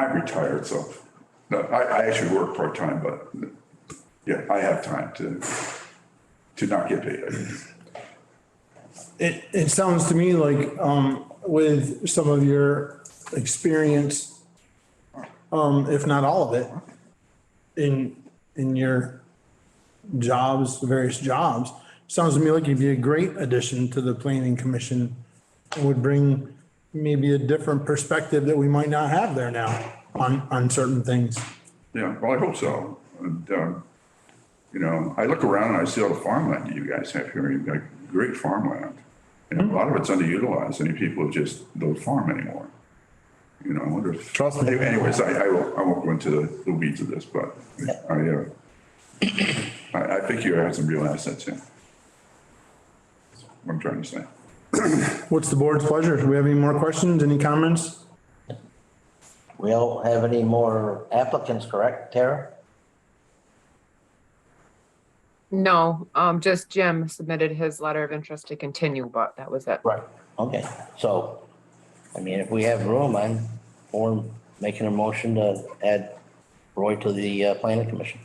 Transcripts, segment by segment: I'm retired, so, no, I, I actually work part-time, but, yeah, I have time to, to not get paid. It, it sounds to me like, um, with some of your experience, um, if not all of it, in, in your jobs, various jobs, sounds to me like you'd be a great addition to the planning commission. It Would bring maybe a different perspective that we might not have there now on, on certain things. Yeah, well, I hope so. And, um, you know, I look around and I see all the farmland that you guys have here. You've got great farmland. Hmm. And a lot of it's underutilized. Any people just don't farm anymore. You know, I wonder. if- Trust me. Anyways, I, I won't, I won't go into the- the weeds of this, but I, uh, I, I think you have some real assets here. That's What I'm trying to say. What's the board's pleasure? Do we have any more questions, any comments? We don't have any more applicants, correct, Tara? No, um, just Jim submitted his letter of interest to continue, but that was it. Right. Okay, so, I mean, if we have room, I'm for making a motion to add Roy to the uh, planning commission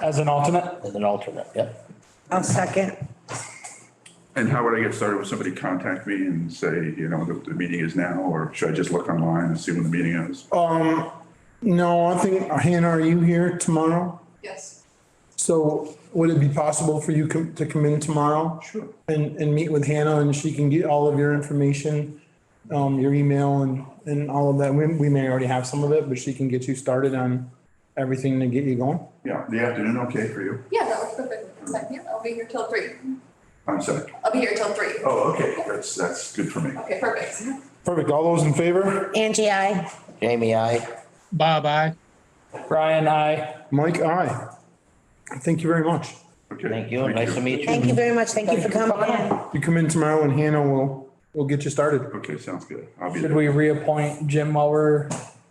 As an alternate? as an alternate, yep. I'll second. And how would I get started? Would somebody contact me and say, you know, the, the meeting is now, or should I just look online and see when the meeting is? No, I think, Hannah, are you here tomorrow? Yes, So would it be possible for you com- to come in tomorrow? Sure. And, and meet with Hannah and she can get all of your information, um, your email and, and all of that. We, we may already have some of it, but she can get you started on everything to get you going. Yeah, the afternoon, okay for you? yeah, that works perfect. Like, yeah, I'll be here till three. I'm sorry. I'll be here till three. Oh, okay, that's, that's good for me. Okay, perfect. Perfect. All those in favor? Angie, I. Jamie, I, Bob, I. Ryan, I. Mike, aye. Thank you very much. Okay. thank you, nice to meet you. Thank you very much. Thank you for coming in. You come in tomorrow and Hannah will, will get you started. Okay, sounds good. I'll be Should there. we reappoint Jim while we're,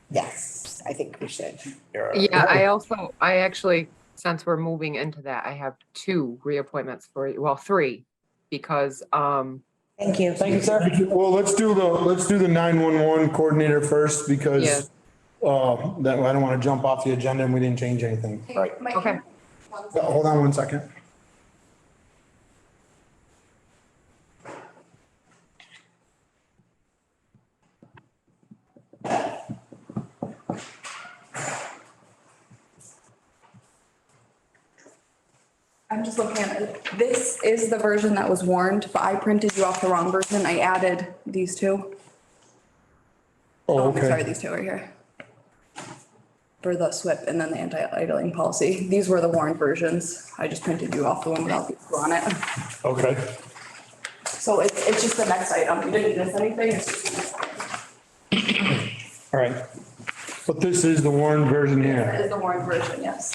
Yes, I think we should. Yeah, I also, I actually, since we're moving into that, I have two reappointments for, you. well, three. Because, um, Thank you. thank you, sir. Well, let's do the, let's do the nine-one-one coordinator first because, uh, that, I don't want to jump off the agenda and we didn't change anything. Hey, Right. Mike, Okay. one Uh, second. Hold on one second. I'm just looking at it. This is the version that was warned, but I printed you off the wrong version. I added these two. Um, Oh, Sorry, okay. these two right here. For the SWIP and then the anti-idling policy. These were the warned versions. I just printed you off the one without the two on it. Okay. So it's, it's just the next item. You didn't miss anything. It's just the next item. All right. But this is the Warren version It here. is the warned version, yes.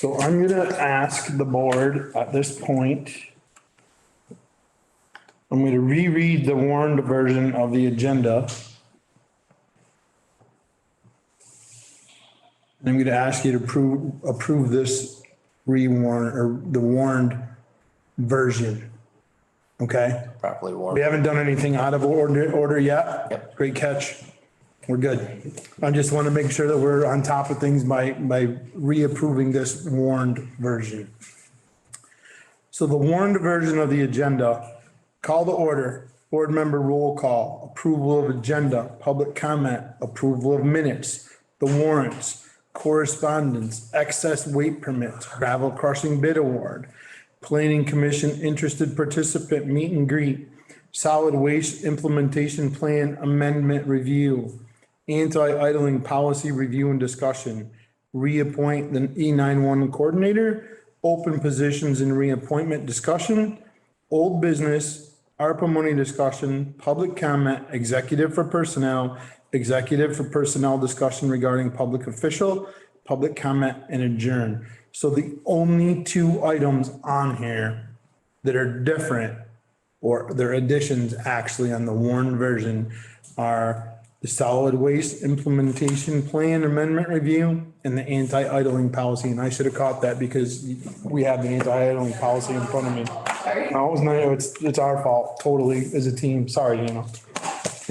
So I'm gonna ask the board at this point. I'm gonna reread the warned version of the agenda. And I'm gonna ask you to approve, approve this rewarn, or the warned version. Okay? Properly We warned. haven't done anything out of order, order yet. Yep. Great catch. We're good. I just want to make sure that we're on top of things by, by reapproving this warned version. So the warned version of the agenda, call to order, board member roll call, approval of agenda, public comment, approval of minutes, the warrants, correspondence, excess weight permits, gravel crossing bid award, planning commission interested participant meet and greet, solid waste implementation plan amendment review, anti-idling policy review and discussion, reappoint the E nine-one coordinator, open positions and reappointment discussion, old business, ARPA money discussion, public comment, executive for personnel, executive for personnel discussion regarding public official, public comment and adjourn. So the only two items on here that are different or their additions actually on the Warren version are the solid waste implementation plan amendment review and the anti-idling policy. And I should have caught that because we have the anti-idling policy in front of me. Sorry. No, it was not, it's, it's our fault totally as a team. Sorry, Hannah.